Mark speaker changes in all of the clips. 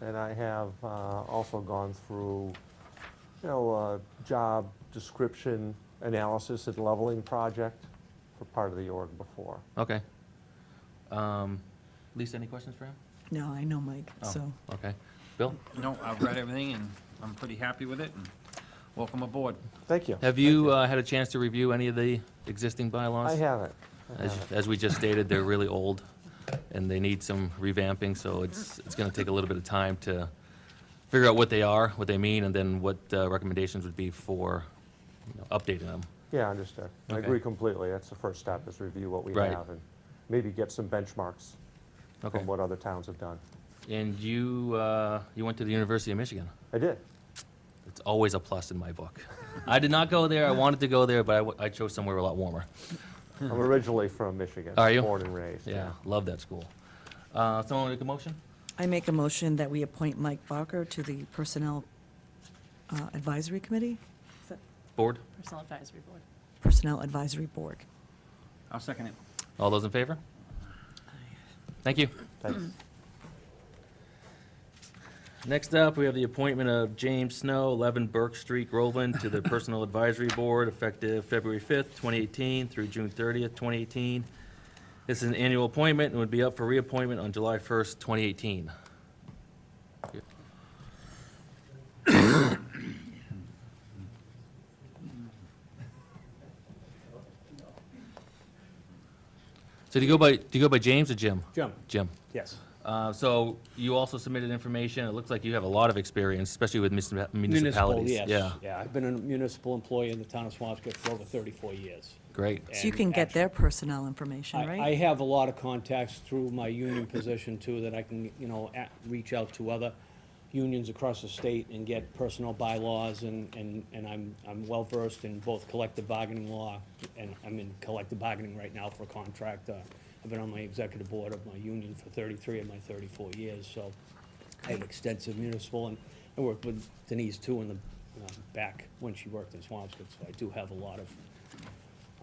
Speaker 1: and I have uh, also gone through, you know, a job description analysis and leveling project for part of the org before.
Speaker 2: Okay. Um, Lisa, any questions for him?
Speaker 3: No, I know Mike,
Speaker 2: Oh,
Speaker 3: so.
Speaker 2: Okay. Bill,
Speaker 4: No, I've read everything and I'm pretty happy with it and welcome aboard.
Speaker 1: Thank you.
Speaker 2: have you uh, had a chance to review any of the existing bylaws?
Speaker 1: I haven't. I
Speaker 2: As,
Speaker 1: haven't.
Speaker 2: as we just stated, they're really old, and they need some revamping, so it's, it's gonna take a little bit of time to figure out what they are, what they mean, and then what uh, recommendations would be for, you know, updating them.
Speaker 1: Yeah, I understand. I
Speaker 2: Okay.
Speaker 1: agree completely. That's the first step, is review what we
Speaker 2: Right.
Speaker 1: have and maybe get some benchmarks
Speaker 2: Okay.
Speaker 1: from what other towns have done.
Speaker 2: And you, uh, you went to the University of Michigan.
Speaker 1: I did.
Speaker 2: It's always a plus in my book. I did not go there, I wanted to go there, but I w- I chose somewhere a lot warmer.
Speaker 1: I'm originally from Michigan.
Speaker 2: Are you?
Speaker 1: Born and raised.
Speaker 2: Yeah, love that school. Uh, Someone make a motion?
Speaker 3: I make a motion that we appoint Mike Barker to the Personnel uh, Advisory Committee?
Speaker 2: Board?
Speaker 5: Personal Advisory Board.
Speaker 3: Personnel Advisory Board.
Speaker 4: I'll second it.
Speaker 2: All those in favor? Thank you.
Speaker 1: Thanks.
Speaker 2: Next up, we have the appointment of James Snow, 11 Burke Street, Groveland, to the Personal Advisory Board effective February 5th, 2018 through June 30th, 2018. This is an annual appointment and would be up for reappointment on July 1st, 2018. So do you go by, do you go by James or Jim?
Speaker 6: Jim,
Speaker 2: Jim.
Speaker 6: yes.
Speaker 2: Uh, So you also submitted information. It looks like you have a lot of experience, especially with municip-
Speaker 6: Municipal,
Speaker 2: municipalities.
Speaker 6: yes.
Speaker 2: Yeah,
Speaker 6: Yeah, I've been a municipal employee in the town of Swampscott for over 34 years.
Speaker 2: great.
Speaker 3: So you
Speaker 6: And
Speaker 3: can get
Speaker 6: actually-
Speaker 3: their personnel information,
Speaker 6: I, I
Speaker 3: right?
Speaker 6: have a lot of contacts through my union position too, that I can, you know, at, reach out to other unions across the state and get personal bylaws and, and, and I'm, I'm well versed in both collective bargaining law and I'm in collective bargaining right now for a contract. Uh, I've been on my executive board of my union for thirty-three of my thirty-four years, so I have extensive municipal and I worked with Denise too in the, uh, back when she worked in Swampscott, so I do have a lot of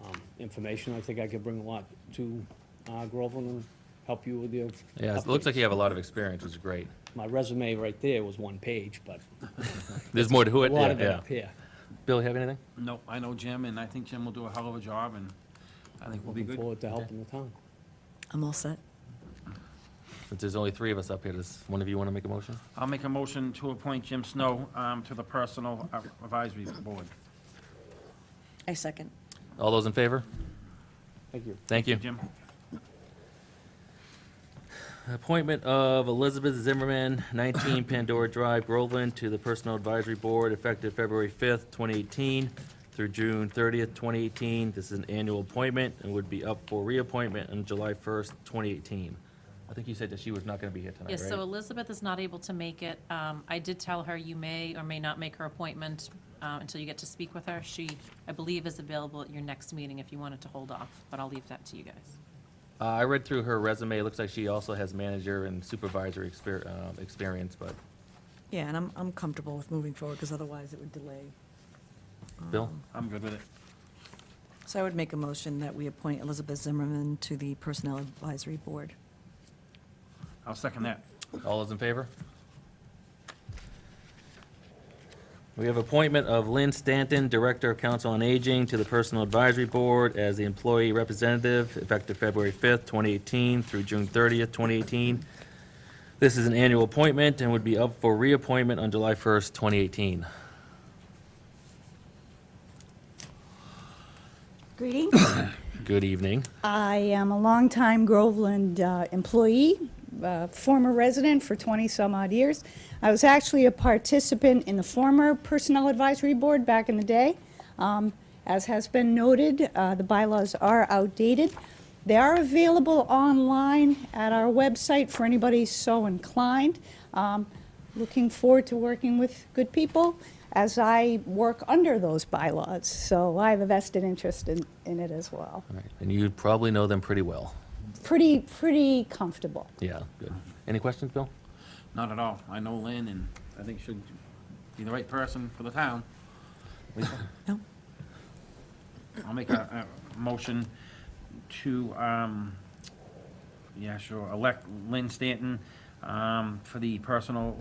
Speaker 6: um, information. I think I could bring a lot to uh, Groveland and help you with your.
Speaker 2: Yeah, it looks like
Speaker 6: updates.
Speaker 2: you have a lot of experience, which is great.
Speaker 6: My resume right there was one page, but
Speaker 2: There's more to
Speaker 6: a
Speaker 2: it.
Speaker 6: lot
Speaker 2: yeah,
Speaker 6: of it
Speaker 2: yeah.
Speaker 6: up here.
Speaker 2: Bill, you have anything?
Speaker 4: No, I know Jim and I think Jim will do a hell of a job and I think we'll be
Speaker 6: Looking
Speaker 4: good.
Speaker 6: forward to helping the town.
Speaker 3: I'm all set.
Speaker 2: Since there's only three of us up here, does one of you want to make a motion?
Speaker 4: I'll make a motion to appoint Jim Snow um, to the Personal Advisory Board.
Speaker 3: I second.
Speaker 2: All those in favor?
Speaker 6: Thank you.
Speaker 2: Thank you.
Speaker 4: Jim?
Speaker 2: Appointment of Elizabeth Zimmerman, 19 Pandora Drive, Groveland, to the Personal Advisory Board effective February 5th, 2018 through June 30th, 2018. This is an annual appointment and would be up for reappointment on July 1st, 2018. I think you said that she was not going to be here tonight, right?
Speaker 5: Yes, so Elizabeth is not able to make it. Um, I did tell her you may or may not make her appointment uh, until you get to speak with her. She, I believe, is available at your next meeting if you wanted to hold off, but I'll leave that to you guys.
Speaker 2: Uh, I read through her resume. It looks like she also has manager and supervisory exper- uh, experience, but
Speaker 3: Yeah, and I'm, I'm comfortable with moving forward, because otherwise it would delay.
Speaker 2: Bill?
Speaker 4: I'm good with it.
Speaker 3: So I would make a motion that we appoint Elizabeth Zimmerman to the Personnel Advisory Board.
Speaker 4: I'll second that.
Speaker 2: All those in favor? We have appointment of Lynn Stanton, Director of Council on Aging, to the Personal Advisory Board as the employee representative effective February 5th, 2018 through June 30th, 2018. This is an annual appointment and would be up for reappointment on July 1st, 2018.
Speaker 7: Greetings.
Speaker 2: Good evening.
Speaker 7: I am a longtime Groveland uh, employee, uh, former resident for 20-some-odd years. I was actually a participant in the former Personnel Advisory Board back in the day. Um, As has been noted, uh, the bylaws are outdated. They are available online at our website for anybody so inclined. Um, Looking forward to working with good people as I work under those bylaws, so I have a vested interest in in it as well
Speaker 2: All right, And you probably know them pretty well.
Speaker 7: pretty, pretty comfortable.
Speaker 2: Yeah, good. Any questions, Bill?
Speaker 4: Not at all. I know Lynn and I think she'll be the right person for the town. Lisa?
Speaker 3: No?
Speaker 4: I'll make a, a motion to, um, yeah, sure, elect Lynn Stanton, um, for the personal